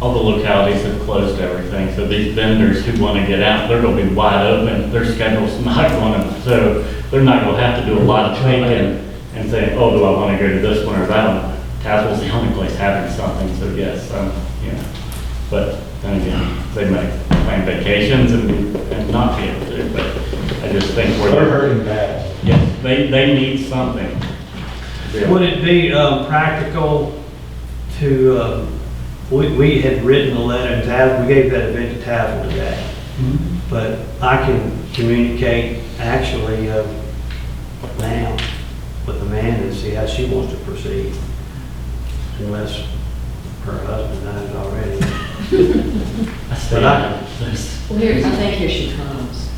all the localities have closed everything, so these vendors who want to get out, they're going to be wide open, their schedule's not going to, so they're not going to have to do a lot of thinking and say, oh, do I want to go to this one or that one? Tazewell's the only place having something, so yes, um, you know, but then again, they might plan vacations and, and not be able to, but I just think They're we're, hurting bad. yes, they, they need something. to be able- Would it be um, practical to, um, we we had written a letter to Tav, we gave that event to Tav today. But I can communicate actually um, now with Amanda and see how she wants to proceed. Unless her husband knows already. I stand on this. Well, here, I think here she comes.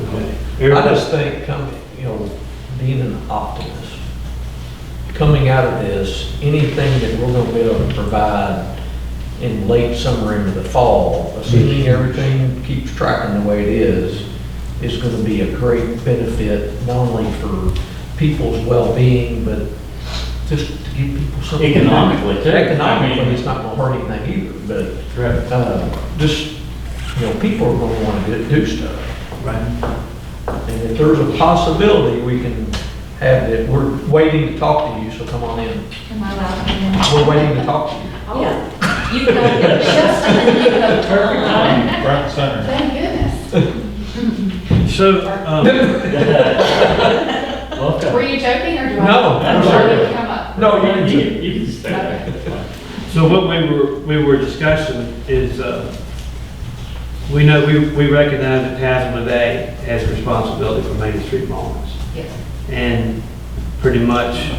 I just think, coming, you know, being an optimist, coming out of this, anything that we're gonna be able to provide in late summer into the fall, assuming everything keeps tracking the way it is, is gonna be a great benefit, not only for people's well-being, but just to give people something. Economically, too. Economically, it's not gonna hurt anything either, Correct. but, uh, just, you know, people are gonna wanna do, do stuff. And if there's a possibility we can have it, we're waiting to talk to you, so come on in. Am I allowed to come in? We're waiting to talk to you. Oh. Yeah. You got your just and you got Perfect time, front and center. Thank goodness. So, um, Welcome. Were you joking or do I? No, I'm Or did sorry. it come up? No, you You can can, you can stay back. so what we were, we were discussing is, uh, we know, we we recognize that Tav today has responsibility for Main Street Mallings. Yes. And pretty much,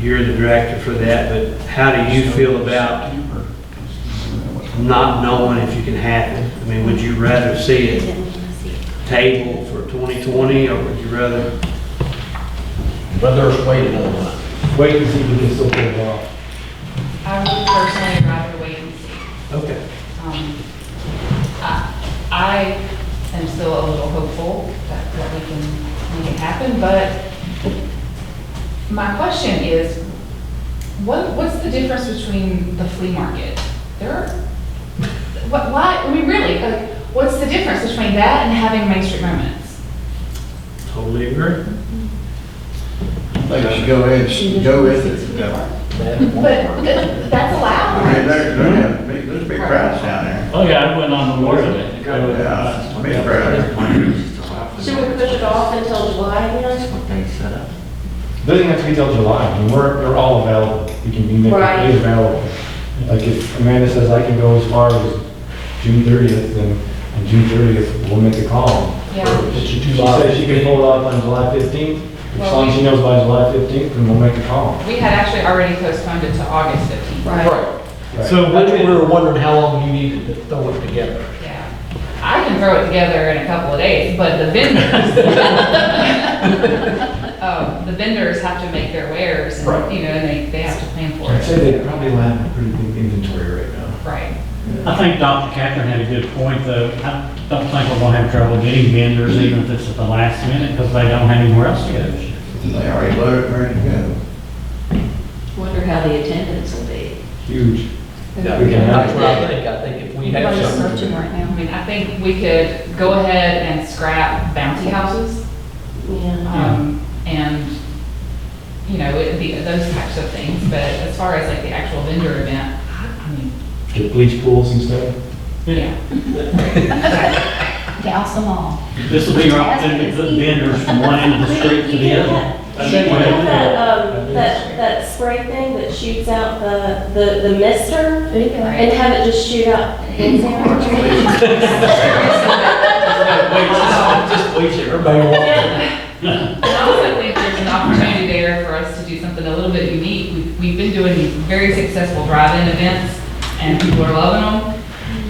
you're the director for that, but how do you feel about not knowing if you can have it? I mean, would you rather see it tabled for 2020, or would you rather? But there's wait another month. Wait and see if we can still pull it off. I would personally rather wait and see. Okay. Um, I I am still a little hopeful that that we can make it happen, but my question is, what, what's the difference between the flea market? There are, what, why, I mean, really, like, what's the difference between that and having Main Street Moments? Totally agree. think you should go ahead, go with it. I But that- that's mean, allowed, right? there, there, are big- there's big crowds down there. Oh, yeah, I went on Memorial Day. I went- Yeah, it's a big crowd. Should we push it off until July then? Doesn't have to be till July, I mean, we're, they're all available, you can be made Right. available. Like if Amanda says I can go as far as June thirtieth, then on June thirtieth, we'll make a call. Yeah, It's a She July- says she can pull it off on July fifteenth, as Well, long as we- she knows by July fifteenth, then we'll make a call. we had actually already postponed it to August 15th. Right. Right. So I what think did- we were wondering how long you needed to throw it together. Yeah, I can throw it together in a couple of days, but the vendors. Oh, the vendors have to make their wares and, Right. you know, and they, they have to plan for I'd say it. they probably have a pretty big inventory right now. Right. I think Dr. Catherine had a good point, though. I don't think we're gonna have trouble getting vendors even if it's at the last minute, because they don't have anywhere else to go. And They already loaded, ready to go. Wonder how the attendance will be. Huge. Yeah, We can have- That's what I think, I think if we have some, right I mean, I think we could go ahead and scrap bouncy houses, Yeah. um, and, you know, it- the, those types of things, but as far as like the actual vendor event, I I mean, The bleach pools and stuff. yeah. Douse them all. This will be your opportunity to put vendors from one end of the street to the other. I You think can we have to have do that, that. um, that, that spray thing that shoots out the, the, the mister Right. and have it just shoot out. just wait, everybody wants. And I also think there's an opportunity there for us to do something a little bit unique. We've, we've been doing these very successful drive-in events, and people are loving them.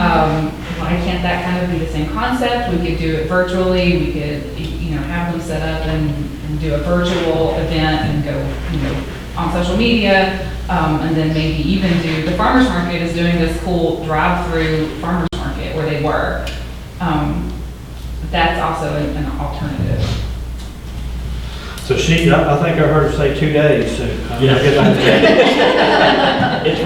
Um, why can't that kind of be the same concept? We could do it virtually, we could, you know, have them set up and, and do a virtual event and go, you know, on social media, um, and then maybe even do, the farmer's market is doing this cool drive-through farmer's market where they were. Um, that's also an an alternative. So she, I I think I heard her say two days, so. I Yeah. guess I-